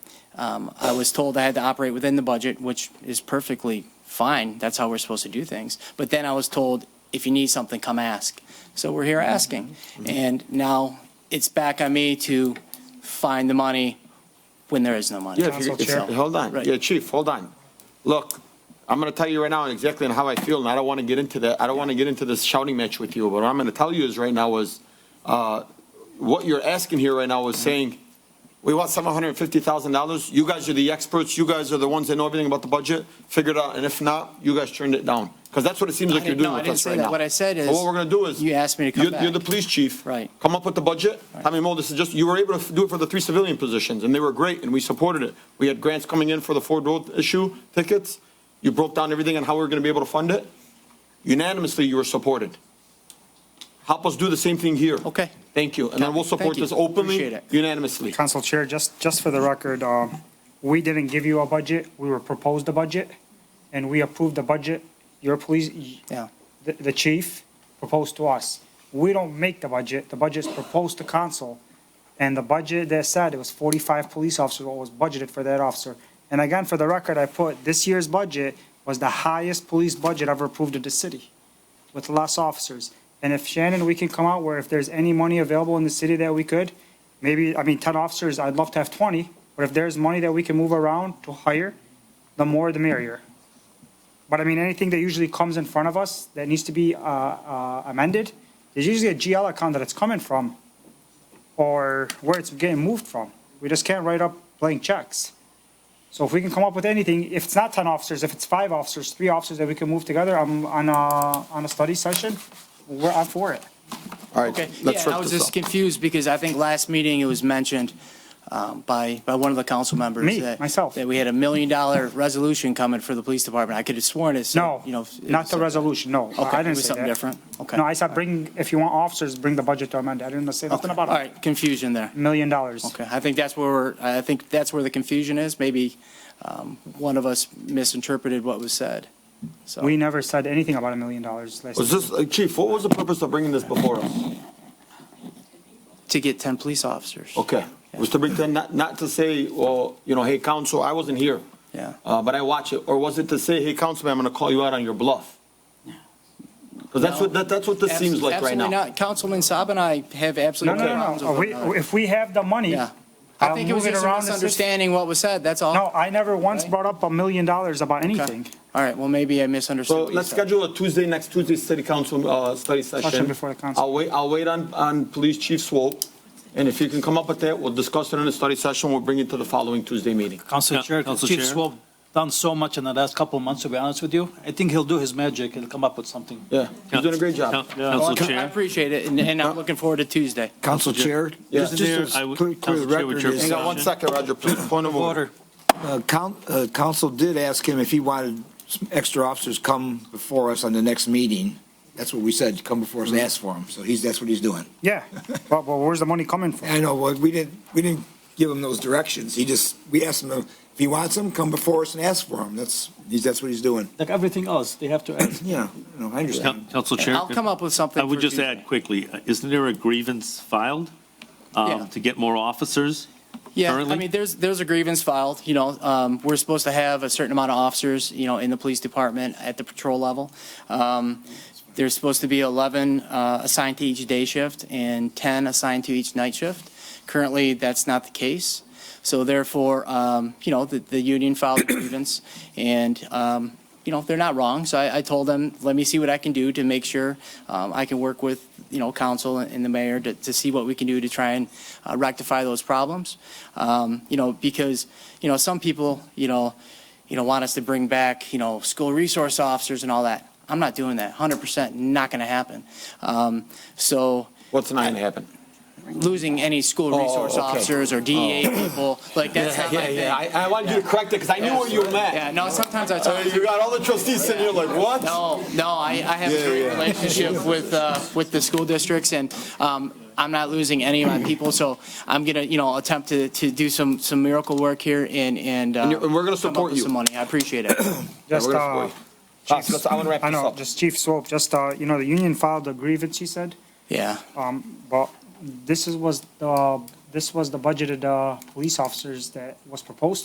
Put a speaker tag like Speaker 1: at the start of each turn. Speaker 1: Um, I was told I had to operate within the budget, which is perfectly fine. That's how we're supposed to do things. But then I was told, if you need something, come ask. So we're here asking.
Speaker 2: Mm-hmm.
Speaker 1: And now it's back on me to find the money when there is no money.
Speaker 2: Yeah, if you-
Speaker 1: So-
Speaker 2: if you- Hold on,
Speaker 1: Right.
Speaker 2: yeah, chief, hold on. Look, I'm gonna tell you right now exactly how I feel, and I don't wanna get into that, I don't wanna get into this shouting match with you, but what I'm gonna tell you is right now is, uh, what you're asking here right now is
Speaker 1: Mm-hmm.
Speaker 2: saying, we want seven hundred and fifty thousand dollars, you guys are the experts, you guys are the ones that know everything about the budget, figure it out, and if not, you guys turned it down. Because that's what it seems like you're
Speaker 1: didn't- no,
Speaker 2: doing
Speaker 1: I
Speaker 2: with
Speaker 1: didn't
Speaker 2: us
Speaker 1: say
Speaker 2: right
Speaker 1: that.
Speaker 2: now.
Speaker 1: What I said
Speaker 2: But
Speaker 1: is,
Speaker 2: What we're gonna do is.
Speaker 1: you asked me to come
Speaker 2: you're- You're the
Speaker 1: back.
Speaker 2: police chief.
Speaker 1: Right.
Speaker 2: Come up with the budget. How many more? This is just, you were able to do it for the three civilian positions, and they were great, and we supported it. We had grants coming in for the Ford Road issue tickets. You broke down everything and how we were gonna be able to fund it. Unanimously, you were supported. Help us do the same thing here.
Speaker 1: Okay.
Speaker 2: Thank you, and then we'll
Speaker 1: Thank
Speaker 2: support
Speaker 1: you.
Speaker 2: this openly,
Speaker 1: Appreciate it.
Speaker 2: unanimously.
Speaker 3: Council Chair, just, just for the record, um, we didn't give you a budget, we were proposed a budget, and we approved the budget. Your police,
Speaker 1: Yeah.
Speaker 3: the, the chief proposed to us. We don't make the budget, the budget's proposed to council. And the budget that said it was forty-five police officers, what was budgeted for that officer. And again, for the record, I put, this year's budget was the highest police budget ever approved in the city, with less officers. And if Shannon, we can come out where if there's any money available in the city that we could, maybe, I mean, ten officers, I'd love to have twenty, but if there's money that we can move around to hire, the more the merrier. But I mean, anything that usually comes in front of us that needs to be uh, uh, amended, there's usually a GL account that it's coming from or where it's getting moved from. We just can't write up blank checks. So if we can come up with anything, if it's not 10 officers, if it's five officers, three officers that we can move together on, on a, on a study session, we're, I'm for it.
Speaker 2: All right,
Speaker 1: Okay,
Speaker 2: let's
Speaker 1: yeah, I
Speaker 2: wrap
Speaker 1: was
Speaker 2: this
Speaker 1: just
Speaker 2: up.
Speaker 1: confused because I think last meeting it was mentioned um, by, by one of the council members.
Speaker 3: Me,
Speaker 1: that-
Speaker 3: myself.
Speaker 1: That we had a million dollar resolution coming for the police department. I could have sworn it, said,
Speaker 3: No,
Speaker 1: you know. it
Speaker 3: not
Speaker 1: was
Speaker 3: the
Speaker 1: something-
Speaker 3: resolution, no.
Speaker 1: Okay,
Speaker 3: I
Speaker 1: it
Speaker 3: didn't
Speaker 1: was
Speaker 3: say
Speaker 1: something
Speaker 3: that.
Speaker 1: different? Okay.
Speaker 3: No, I said bring, if you want officers, bring the budget to amend. I didn't say
Speaker 1: Okay,
Speaker 3: nothing
Speaker 1: All
Speaker 3: about a
Speaker 1: right, confusion there.
Speaker 3: million dollars.
Speaker 1: Okay, I think that's where we're, I think that's where the confusion is. Maybe um, one of us misinterpreted what was said. So,
Speaker 3: We never said anything about a million dollars last
Speaker 2: Was this, uh, chief, what was the purpose of bringing this before us?
Speaker 1: to get 10 police officers.
Speaker 3: Oh.
Speaker 2: Okay, it was to bring, to- not, not to say, well, you know, hey, council, I wasn't here.
Speaker 1: Yeah.
Speaker 2: Uh, but I watch it, or was it to say, hey, councilman, I'm gonna call you out on your bluff? Because that's what, that, that's what this seems like right
Speaker 1: Absolutely
Speaker 2: now.
Speaker 1: not. Councilman Saab and I have
Speaker 3: No,
Speaker 1: absolutely.
Speaker 3: no, no,
Speaker 1: problems
Speaker 3: no.
Speaker 1: with
Speaker 3: We-
Speaker 1: that.
Speaker 3: If we have the money,
Speaker 1: Yeah. I
Speaker 3: I'll
Speaker 1: think it was
Speaker 3: move it
Speaker 1: just a
Speaker 3: around. the system.
Speaker 1: misunderstanding what was said, that's all.
Speaker 3: No, I never once
Speaker 1: Okay.
Speaker 3: brought up a million dollars about
Speaker 1: Okay.
Speaker 3: anything.
Speaker 1: All right, well, maybe I
Speaker 2: So
Speaker 1: misunderstood. what you
Speaker 2: let's
Speaker 1: said.
Speaker 2: schedule a Tuesday, next Tuesday, city council, uh, study session.
Speaker 3: before the council.
Speaker 2: I'll wait, I'll wait on, on police chief Swope, and if you can come up with that, we'll discuss it in the study session, we'll bring it to the following Tuesday meeting.
Speaker 4: Council
Speaker 5: Yeah,
Speaker 4: Chair,
Speaker 5: Council
Speaker 4: Chief
Speaker 5: Chair.
Speaker 4: Swob done so much in the last couple of months, to be honest with you. I think he'll do his magic and come up with something.
Speaker 2: Yeah, you're doing a great job.
Speaker 5: Coun-
Speaker 4: Yeah.
Speaker 5: Council
Speaker 1: Well, I
Speaker 5: Chair.
Speaker 1: appreciate it, and- and I'm looking forward to Tuesday.
Speaker 6: Council Chair,
Speaker 2: Yeah.
Speaker 6: just just
Speaker 5: I
Speaker 6: to
Speaker 5: would-
Speaker 6: clear clear the
Speaker 5: Council Chair, would
Speaker 6: record,
Speaker 5: your
Speaker 6: is,
Speaker 2: Hang on one second, Roger, please, point of order.
Speaker 4: Order.
Speaker 6: uh, coun- uh, council did ask him if he wanted some extra officers come before us on the next meeting. That's what we said, come before us and ask for them. So he's, that's what he's doing.
Speaker 3: Yeah, but, but where's the money coming from?
Speaker 6: I know, well, we didn't, we didn't give him those directions. He just, we asked him if he wants them, come before us and ask for them. That's, he's, that's what he's doing.
Speaker 4: Like everything else, they have to ask.
Speaker 6: Yeah, no, I
Speaker 5: Coun-
Speaker 6: understand.
Speaker 5: Council Chair.
Speaker 1: I'll come up with something.
Speaker 5: I would
Speaker 1: for
Speaker 5: just
Speaker 1: Tuesday.
Speaker 5: add quickly, uh, isn't there a grievance filed
Speaker 1: Yeah.
Speaker 5: um, to get more officers?
Speaker 1: Yeah, I
Speaker 5: currently?
Speaker 1: mean, there's, there's a grievance filed, you know, um, we're supposed to have a certain amount of officers, you know, in the police department at the patrol level. Um, There's supposed to be 11 uh, assigned to each day shift and 10 assigned to each night shift. Currently, that's not the case. So therefore, um, you know, the, the union filed a grievance and, um, you know, they're not wrong. So I, I told them, let me see what I can do to make sure um, I can work with, you know, council and the mayor to, to see what we can do to try and uh, rectify those problems. Um, you know, because, you know, some people, you know, you know, want us to bring back, you know, school resource officers and all that. I'm not doing that. 100% not going to happen. Um, so
Speaker 2: What's not gonna happen?
Speaker 1: losing any school resource
Speaker 2: Oh, okay. Oh.
Speaker 1: officers or DEA people, like that's not my
Speaker 2: Yeah,
Speaker 1: thing.
Speaker 2: yeah, I, I wanted you to correct it, because I knew what you meant.
Speaker 1: Yeah, no, sometimes I talk
Speaker 2: Uh, You got all the trustees sitting here like, what?
Speaker 1: No, no, I, I have a
Speaker 2: Yeah,
Speaker 1: great
Speaker 2: yeah.
Speaker 1: relationship with, uh, with the school districts and, um, I'm not losing any of my people, so I'm gonna, you know, attempt to, to do some, some miracle work here and, and. uh,
Speaker 2: And you're- and we're gonna
Speaker 1: come up
Speaker 2: support
Speaker 1: with
Speaker 2: you.
Speaker 1: Some money, I appreciate it.
Speaker 3: Just,
Speaker 2: we're
Speaker 3: uh,
Speaker 2: gonna Ah, so let's- I want to wrap
Speaker 3: I
Speaker 2: this
Speaker 3: know,
Speaker 2: up.
Speaker 3: just Chief Swope, just, uh, you know, the union filed a grievance, he said,
Speaker 1: Yeah,
Speaker 3: um, but this is, was, the this was the budgeted, uh, police officers that was proposed